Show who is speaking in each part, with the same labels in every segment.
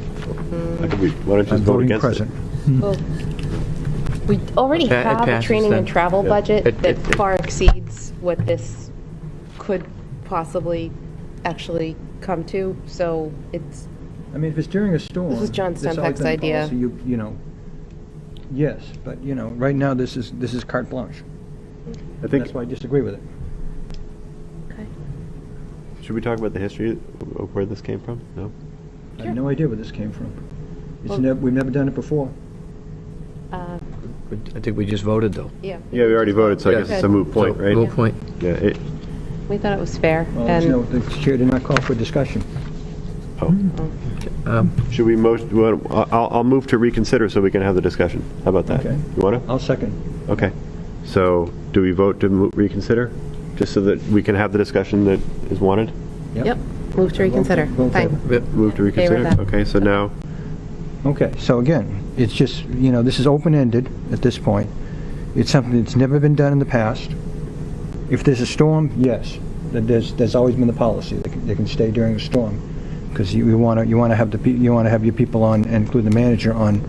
Speaker 1: Why don't we- why don't you
Speaker 2: I'm
Speaker 1: just vote
Speaker 2: voting
Speaker 1: against it?
Speaker 2: present.
Speaker 3: Hmm. We already
Speaker 4: That- it
Speaker 3: have a
Speaker 4: passes
Speaker 3: training
Speaker 4: then.
Speaker 3: and travel
Speaker 1: Yeah.
Speaker 3: budget
Speaker 4: It-
Speaker 3: that
Speaker 4: it- it-
Speaker 3: far exceeds what this could possibly actually come to, so it's,
Speaker 2: I mean, if it's during a storm.
Speaker 3: was John
Speaker 2: it's always
Speaker 3: Stempeck's
Speaker 2: been the
Speaker 3: idea.
Speaker 2: policy, You, you know, yes, but, you know, right now, this is, this is carte blanche.
Speaker 1: I think,
Speaker 2: That's why I disagree with it.
Speaker 1: should we talk about the history of where this came from? No?
Speaker 2: I have no idea where this came from. It's never, we've never done it before.
Speaker 3: uh,
Speaker 4: I think we just voted, though.
Speaker 3: yeah.
Speaker 1: Yeah, we already voted, so I guess
Speaker 4: Yes.
Speaker 1: it's a moot point,
Speaker 4: So,
Speaker 1: right?
Speaker 4: Moot point.
Speaker 1: Yeah, it,
Speaker 3: We thought it was fair,
Speaker 2: Well, there's no,
Speaker 3: and
Speaker 2: the chair did not call for discussion.
Speaker 1: oh.
Speaker 4: Um,
Speaker 1: should we most, well, I- I'll, I'll move to reconsider so we can have the discussion. How about that?
Speaker 2: Okay.
Speaker 1: You want to?
Speaker 2: I'll second.
Speaker 1: Okay. So, do we vote to mo- reconsider? Just so that we can have the discussion that is wanted?
Speaker 3: Yep. move to reconsider.
Speaker 2: Vote- vote
Speaker 3: Fine.
Speaker 2: favor.
Speaker 1: Move to
Speaker 3: Favor
Speaker 1: reconsider?
Speaker 3: that.
Speaker 1: Okay, so now,
Speaker 2: Okay, so again, it's just, you know, this is open-ended at this point. It's something that's never been done in the past. If there's a storm, yes, Th- there's, there's always been the policy, they can, they can stay during a storm. Because you want to, you want to have the, pe- you want to have your people on, and include the manager on,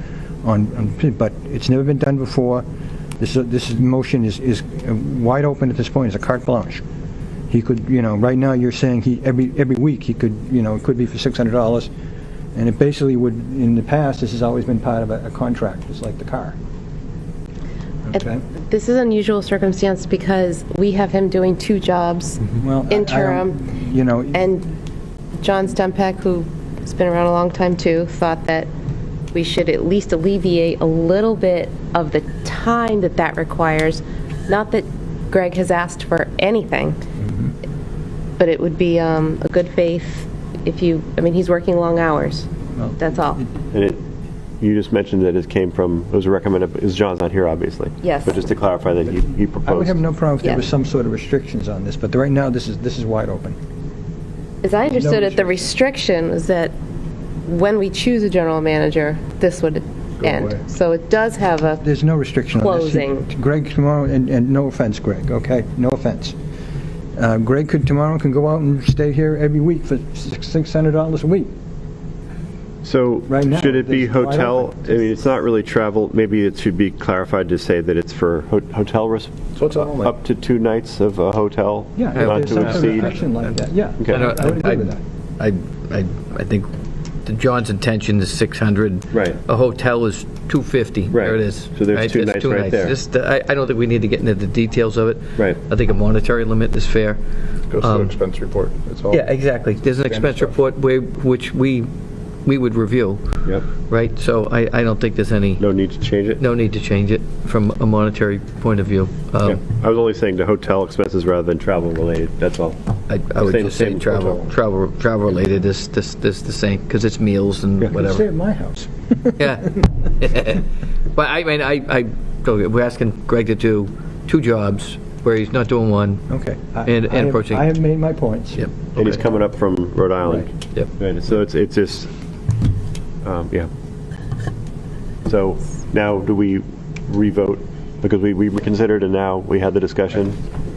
Speaker 2: on, on p- but it's never been done before. This, this motion is, is uh, wide open at this point, it's a carte blanche. He could, you know, right now, you're saying he, every, every week, he could, you know, it could be for $600, and it basically would, in the past, this has always been part of a a contract, just like the car. Okay?
Speaker 3: This is unusual circumstance because we have him doing two jobs,
Speaker 2: Well, I- I don't-
Speaker 3: interim,
Speaker 2: You know,
Speaker 3: and John Stempak, who's been around a long time too, thought that we should at least alleviate a little bit of the time that that requires. Not that Greg has asked for anything, but it would be um, a good faith if you, I mean, he's working long hours. That's all.
Speaker 1: and it, you just mentioned that it came from, it was recommended, is John's not here, obviously?
Speaker 3: Yes.
Speaker 1: But just to clarify that he, he proposed.
Speaker 2: I would have no problem if there
Speaker 3: Yeah.
Speaker 2: was some sort of restrictions on this, but right now, this is, this is wide open.
Speaker 3: As I understood it, the
Speaker 2: restriction.
Speaker 3: restriction is that when we choose a general manager, this would
Speaker 2: away.
Speaker 3: end. So it does have a,
Speaker 2: There's no restriction on this.
Speaker 3: Closing.
Speaker 2: Greg tomorrow, and, and no offense, Greg, okay? No offense. Uh, Greg could, tomorrow can go out and stay here every week for six- $600 a week.
Speaker 1: So,
Speaker 2: Right now,
Speaker 1: should it be
Speaker 2: it's wide
Speaker 1: hotel? I
Speaker 2: open.
Speaker 1: mean, it's not really travel, maybe it should be clarified to say that it's for ho- hotel, res- up to two nights of a hotel,
Speaker 2: Yeah. if
Speaker 1: not
Speaker 2: there's some
Speaker 1: to
Speaker 2: sort of
Speaker 1: exceed.
Speaker 2: restriction like that, yeah.
Speaker 1: Okay. I don't-
Speaker 2: I would agree with that.
Speaker 4: I, I, I think the John's intention is 600.
Speaker 1: Right.
Speaker 4: A hotel is 250. There
Speaker 1: Right.
Speaker 4: it is.
Speaker 1: So there's
Speaker 4: Right,
Speaker 1: two
Speaker 4: it's
Speaker 1: nights right there.
Speaker 4: Just, uh, I, I don't think we need to get into the details of it.
Speaker 1: Right.
Speaker 4: I think a monetary limit is fair.
Speaker 5: Goes to expense report, that's
Speaker 1: Oh.
Speaker 5: all.
Speaker 4: Yeah, exactly. There's an expense
Speaker 5: stuff.
Speaker 4: report where, which we, we would review,
Speaker 1: Yep,
Speaker 4: right? So I, I don't think there's any,
Speaker 1: no need to change it?
Speaker 4: no need to change it from a monetary point of view. Um,
Speaker 1: Okay. I was only saying to hotel expenses rather than travel related, that's all.
Speaker 4: I, I would
Speaker 1: Same-
Speaker 4: just say
Speaker 1: same
Speaker 4: travel,
Speaker 1: hotel.
Speaker 4: travel, travel related is, this, this the same, because it's meals
Speaker 1: Yeah.
Speaker 4: and
Speaker 2: Stay at
Speaker 4: whatever.
Speaker 2: my house.
Speaker 4: Yeah. But I mean, I, I, totally- we're asking Greg to do two jobs where he's not doing one.
Speaker 2: Okay. I-
Speaker 4: And- and
Speaker 2: I have-
Speaker 4: approaching-
Speaker 2: I have made my points.
Speaker 4: Yep.
Speaker 1: And he's coming up from Rhode Island.
Speaker 4: Yep.
Speaker 1: Right, so it's, it's just, um, yeah. So now do we revote? Because we, we reconsidered and now we had the discussion.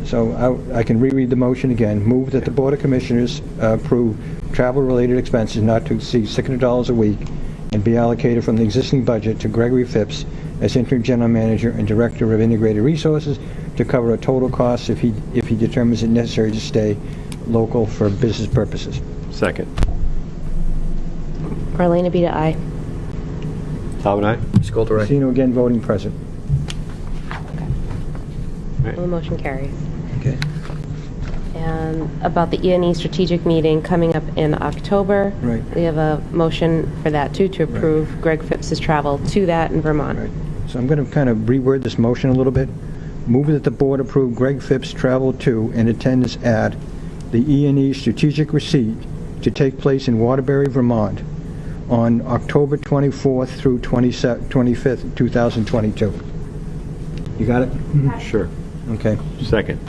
Speaker 2: So I- I can reread the motion again. Move that the Board of Commissioners uh, approve travel-related expenses not to exceed $600 a week and be allocated from the existing budget to Gregory Phipps as interim general manager and director of integrated resources to cover a total cost if he, if he determines it necessary to stay local for business purposes.
Speaker 1: Second.
Speaker 3: Marlena Bita, aye.
Speaker 1: Tom and I?
Speaker 4: Skolter, aye.
Speaker 2: Sino again voting present.
Speaker 3: Well, The motion carries.
Speaker 2: Okay.
Speaker 3: And about the E and E strategic meeting coming up in October.
Speaker 2: Right.
Speaker 3: We have a motion for that too, to approve Greg Phipps's travel to that in Vermont.
Speaker 2: So I'm going to kind of reword this motion a little bit. Move that the board approve Greg Phipps travel to and attendance at the E and E Strategic Receipt to take place in Waterbury, Vermont, on October 24th through 27 25th, 2022. You got it?
Speaker 1: Sure.
Speaker 2: Okay.
Speaker 1: Second.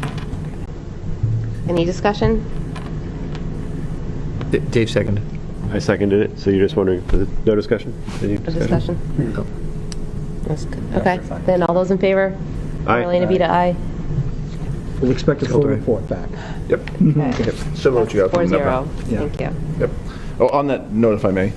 Speaker 3: Any discussion?
Speaker 4: D- Dave seconded.
Speaker 1: I seconded it, so you're just wondering, was it no discussion? Any
Speaker 3: No discussion?
Speaker 4: No.
Speaker 3: That's good. Okay, then all those in favor?
Speaker 1: Aye.
Speaker 3: Marlena Bita, aye.
Speaker 2: We'll expect a full
Speaker 4: Tilbury.
Speaker 2: report back.
Speaker 5: Yep. Similar to you got
Speaker 3: Four
Speaker 5: from Napa.
Speaker 3: zero.
Speaker 2: Yeah.
Speaker 3: Thank you.
Speaker 5: Yep. Oh, on that note, if I may,